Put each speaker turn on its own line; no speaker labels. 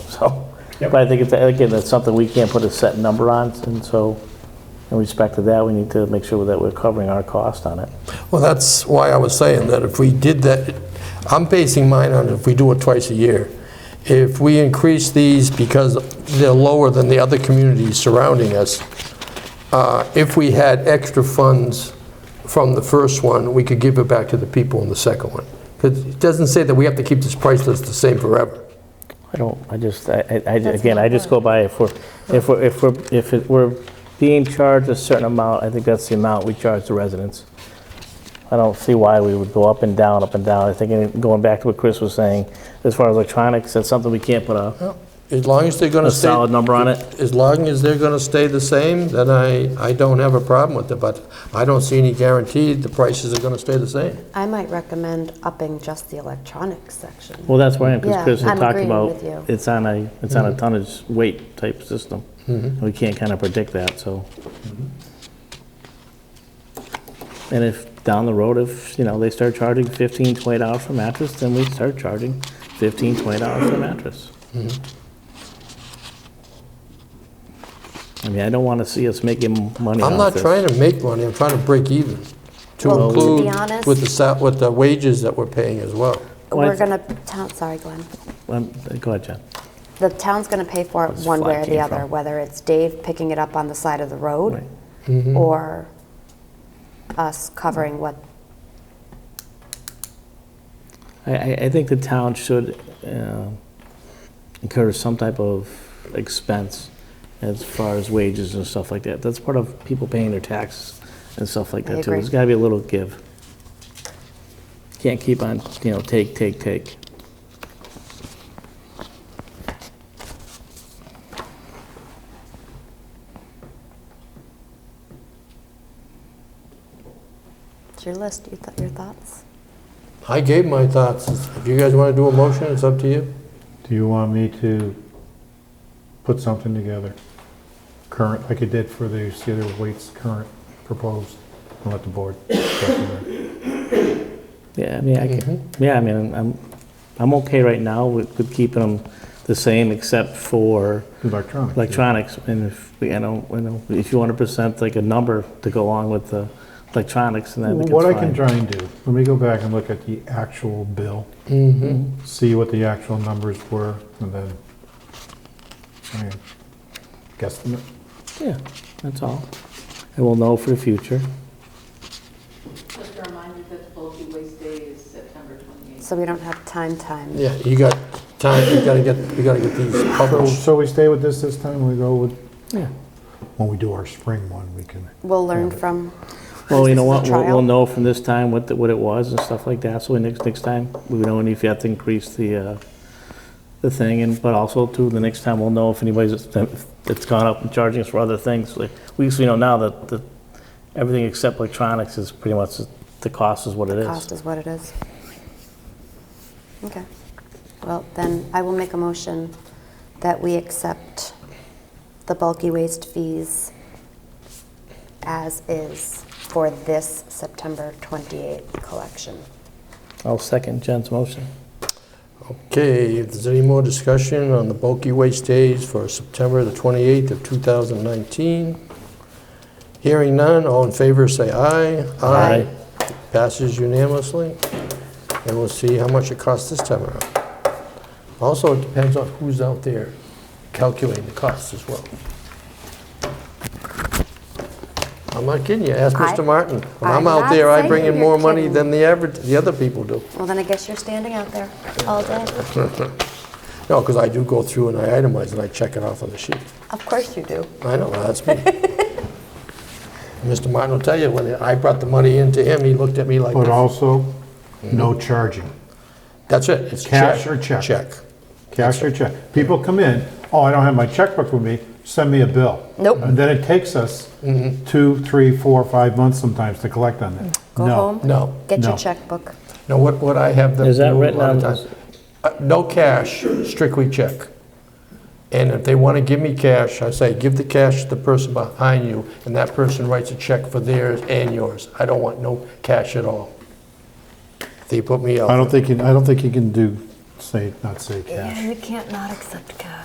so.
Yep.
But I think, it's again, that's something we can't put a set number on, and so in respect to that, we need to make sure that we're covering our cost on it.
Well, that's why I was saying that if we did that, I'm basing mine on if we do it twice a year. If we increase these because they're lower than the other communities surrounding us, uh, if we had extra funds from the first one, we could give it back to the people in the second one. 'Cause it doesn't say that we have to keep this price list the same forever.
I don't, I just, I, I- I- again, I just go by if we're, if we're, if we're, if it- we're being charged a certain amount, I think that's the amount we charge the residents. I don't see why we would go up and down, up and down. I think, and going back to what Chris was saying, as far as electronics, that's something we can't put a,
As long as they're going
a
to stay...
solid number on it.
As long as they're going to stay the same, then I, I don't have a problem with it, but I don't see any guarantee the prices are going to stay the same.
I might recommend upping just the electronics section.
Well, that's where I am, because
Yeah,
Chris had
I'm
talked
agreeing
about,
with you.
it's on a, it's
Mm-hmm.
on a tonnage weight type system. We can't kind of predict that, so.
Mm-hmm.
And if, down the road, if, you know, they start charging 15, 20 dollars for mattress, then we start charging 15, 20 dollars for mattress.
Mm-hmm.
I mean, I don't want to see us making money
I'm
off
not
this.
trying to make money, I'm trying to break even, to
Well, to be
include
honest-
with the, sa- with the wages that we're paying as well.
Well, I
We're
th-
gonna, town, sorry, Glenn.
Um, Go ahead, John.
The town's gonna pay for it
Where's
one
the flag
way or the
came
other,
from?
whether it's Dave picking it up on the side of the road
Right. Mm-hmm.
or us covering what,
I, I, I think the town should uh, incur some type of expense as far as wages and stuff like that. That's part of people paying their taxes and stuff like
I
that too.
agree.
There's gotta be a little give. Can't keep on, you know, take, take, take.
it's your list, you thought- your thoughts?
I gave my thoughts, if you guys want to do a motion, it's up to you.
Do you want me to put something together, current, like I did for the other weights, current proposed, and let the board?
Yeah, I mean, I can,
Mm-hmm.
yeah, I mean, I'm, I'm okay right now with, with keeping them the same except for
Electronic.
electronics. And if, we- I know, I know, if you want to present like a number to go along with the electronics, then I think it's
What I
fine.
can try and do, let me go back and look at the actual bill,
Mm-hmm.
see what the actual numbers were, and then, I mean, guesstimate.
Yeah, that's all. And we'll know for the future.
Just a reminder that the bulky waste day is September 28th.
So we don't have time, time.
Yeah, you got time, you gotta get, you gotta get these
So,
published.
so we stay with this this time, we go with,
Yeah.
when we do our spring one, we can,
We'll learn from,
Well, you know
Is
what,
this a
we'll, we'll
trial?
know from this time what, the- what it was and stuff like that, so next, next time, we would know if you have to increase the, uh, the thing, and, but also too, the next time we'll know if anybody's, that's gone up and charging us for other things. Like, We, we know now that, that everything except electronics is pretty much, the cost is what it
cost
is.
is what it is. Okay. Well, then I will make a motion that we accept the bulky waste fees as is for this September 28th collection.
I'll second Jen's motion.
Okay, if there's any more discussion on the bulky waste days for September the 28th of 2019, hearing none, all in favor, say aye.
Aye.
Passes unanimously, and we'll see how much it costs this time around. Also, it depends on who's out there calculating the costs as well. I'm not kidding you, ask
I-
Mr. Martin. When I'm
I'm
out
not
there, I
saying
bring in
you're
more money
kidding.
than the average, the other people do.
Well, then I guess you're standing out there all day.
No, because I do go through and I itemize and I check it off on the sheet.
Of course you do.
I know, that's me. Mr. Martin will tell you, when I brought the money in to him, he looked at me like,
but also, no charging.
that's it, it's check.
Cash or check?
Check.
Cash or check. People come in, oh, I don't have my checkbook with me, send me a bill.
Nope.
And then it takes us two, three, four, five months sometimes to collect on that.
Go
No.
home,
No,
get your
No.
checkbook.
no, what, what I have them
Is that
do a
written
lot of
on-
times- Uh, No cash, strictly check. And if they want to give me cash, I say, give the cash to the person behind you, and that person writes a check for theirs and yours. I don't want no cash at all. They put me out.
I don't think, you- I don't think you can do, say, not say cash.
you can't not accept cash.